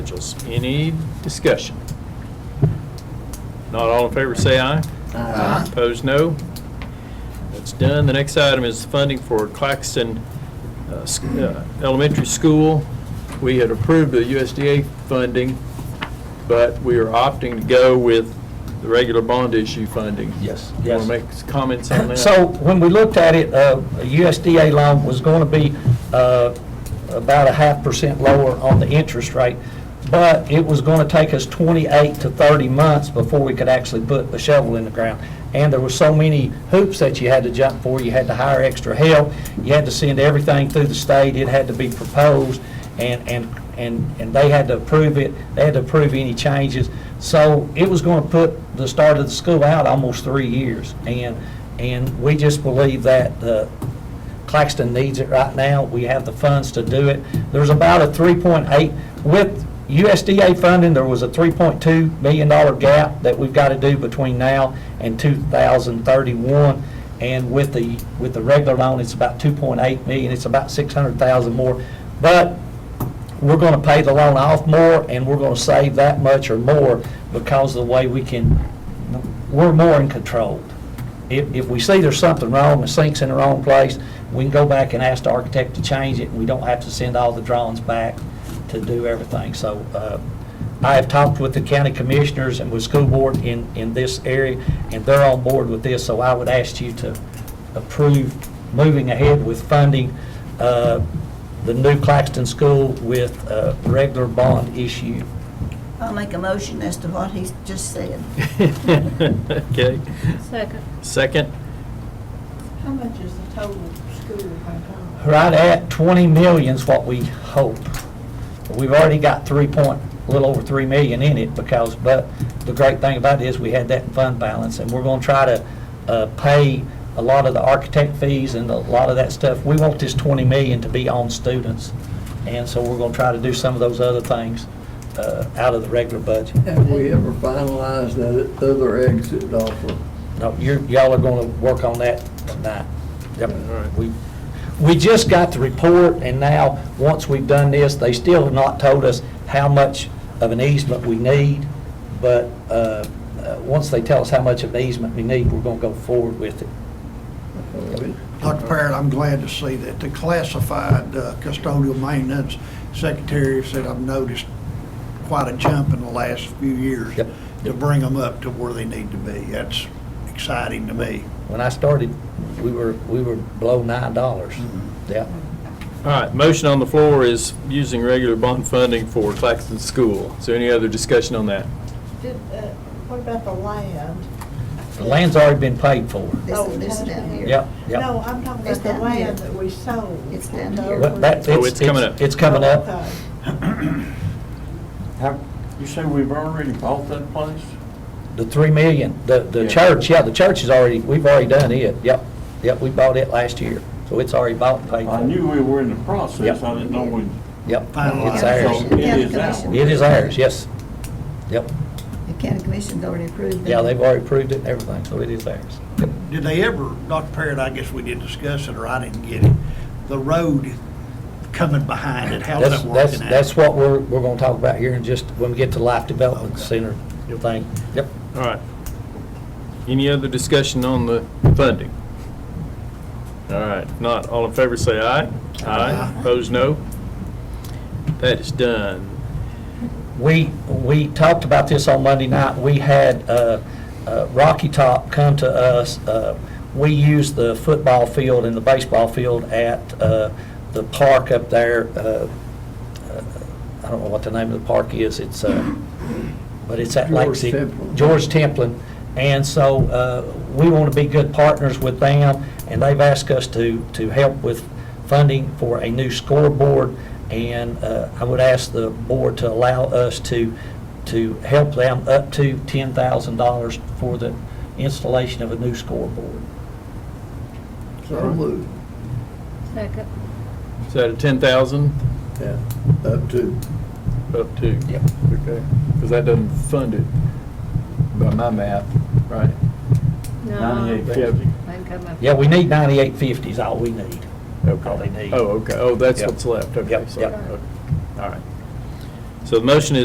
Essentials. Any discussion? Not all in favor, say aye. Aye. Opposed, no. That's done. The next item is funding for Claxton uh, s- uh, Elementary School. We had approved the USDA funding, but we are opting to go with the regular bond issue funding. Yes, You want yes. to make s- comments on that? So when we looked at it, uh, a USDA loan was going to be uh, about a half percent lower on the interest rate, but it was going to take us 28 to 30 months before we could actually put the shovel in the ground. And there were so many hoops that you had to jump for, you had to hire extra help, you had to send everything through the state, it had to be proposed, and, and, and and they had to approve it, they had to approve any changes. So it was going to put the start of the school out almost three years. And, and we just believe that uh, Claxton needs it right now. We have the funds to do it. There's about a 3.8, with USDA funding, there was a $3.2 million dollar gap that we've got to do between now and 2031. And with the, with the regular loan, it's about 2.8 million, it's about 600,000 more. But we're going to pay the loan off more, and we're going to save that much or more because of the way we can, we're more in control. If, if we see there's something wrong, the sink's in the wrong place, we can go back and ask the architect to change it, and we don't have to send all the drawings back to do everything. So uh, I have talked with the county commissioners and with school board in, in this area, and they're on board with this, so I would ask you to approve moving ahead with funding uh, the new Claxton School with uh, regular bond issue. I'll make a motion as to what he's just said. Okay. Second. Second? How much is the total school by now? Right at 20 million's what we hope. We've already got 3 point, a little over 3 million in it because, but the great thing about it is we had that in fund balance and we're going to try to uh, pay a lot of the architect fees and a lot of that stuff. We want this 20 million to be on students. And so we're going to try to do some of those other things uh, out of the regular budget. Have we ever finalized that other exit offer? No, you, y'all are gonna work on that tonight. Yep. right. We, we just got the report, and now, once we've done this, they still have not told us how much of an easement we need, but, uh, uh, once they tell us how much of an easement we need, we're gonna go forward with it. Dr. Parrott, I'm glad to see that the classified uh, custodial maintenance secretary said I've noticed quite a jump in the last few years Yep. to bring them up to where they need to be. That's exciting to me. When I started, we were, we were below nine dollars. Yeah. All right, motion on the floor is using regular bond funding for Claxton School. Is there any other discussion on that? Did, uh, what about the land? The land's already been paid for. This Oh, is, this is down here. Yep, yep. No, I'm talking It's about the down here. land that we sold. It's down To here. Well, that- Oakland. Oh, it's coming up. It's coming up. Okay. Have, you say we've already bought that place? The three million, the, the Yeah. church, yeah, the church is already, we've already done it, yep, yep, we bought it last year, so it's already bought and paid I for. knew we were in the Yep. process, I didn't know we, Yep, Finalized. it's ours, so it is ours. Commission. it is ours, yes, yep, The county commission's already approved. yeah, it. they've already approved it and everything, so it is ours. Did they ever, Dr. Parrott, I guess we did discuss it, or I didn't get it, the road coming behind it, how's That's, that that's, working out? that's what we're, we're gonna talk about here in just, when we get to life development center thing, yep. All right. Any other discussion on the funding? All right, if not, all in favor say aye. Aye. Opposed, no. That is done. We, we talked about this on Monday night. We had uh, uh, Rocky Top come to us. Uh, We used the football field and the baseball field at uh, the park up there. uh, uh, I don't know what the name of the park is. It's, uh, but it's at George Lake City. Templin. George Templin. And so uh, we want to be good partners with them, and they've asked us to, to help with funding for a new scoreboard. And uh, I would ask the board to allow us to, to help them up to $10,000 for the installation of a new scoreboard. So moved, Second. Is that a 10,000 yeah, up to. up to? Yep. Okay, because that doesn't fund it by my math, right? No. ninety-eight fifty. Mine come up. Yeah, we need 9850 is all we need. All they Okay. need. Oh, okay, oh, that's Yep. what's left, okay. Yep, sorry. yep. Okay. All right. So the motion is